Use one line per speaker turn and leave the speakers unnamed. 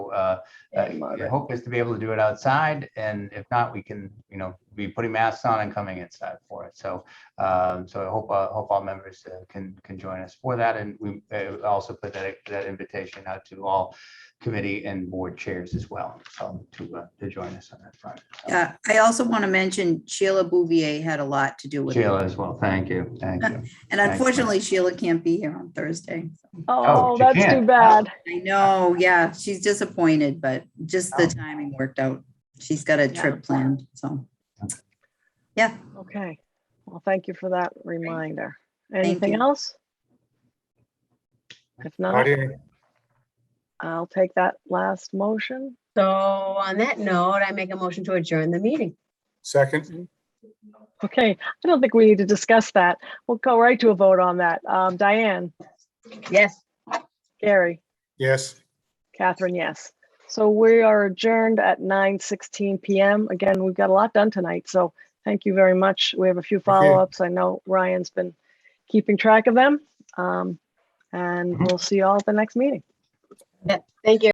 uh, uh,
Same
the
weather.
hope is to be able to do it outside, and if not, we can, you know, be putting masks on and coming inside for it. So, um, so I hope, uh, hope all members uh, can, can join us for that, and we uh, also put that, that invitation out to all committee and board chairs as well, so to, uh, to join us on that front.
Yeah, Uh, I also want to mention Sheila Bouvier had a lot to do with it.
Sheila as well, thank you, thank you.
And unfortunately, Sheila can't be here on Thursday.
Oh,
Oh,
she
that's
can't.
too bad.
I know, yeah, she's disappointed, but just the timing worked out. She's got a trip planned, so. Yeah,
Okay. Well, thank you for that reminder.
Thank
Anything
you.
else? If not,
Claudia,
I'll take that last motion.
So on that note, I make a motion to adjourn the meeting.
second.
Okay, I don't think we need to discuss that. We'll go right to a vote on that. Um, Diane,
Yes.
Gary,
Yes.
Catherine, yes. So we are adjourned at nine sixteen PM. Again, we've got a lot done tonight, so thank you very much. We have a few follow-ups. I know Ryan's been keeping track of them. Um, and
Mhm.
we'll see you all at the next meeting.
Thank you.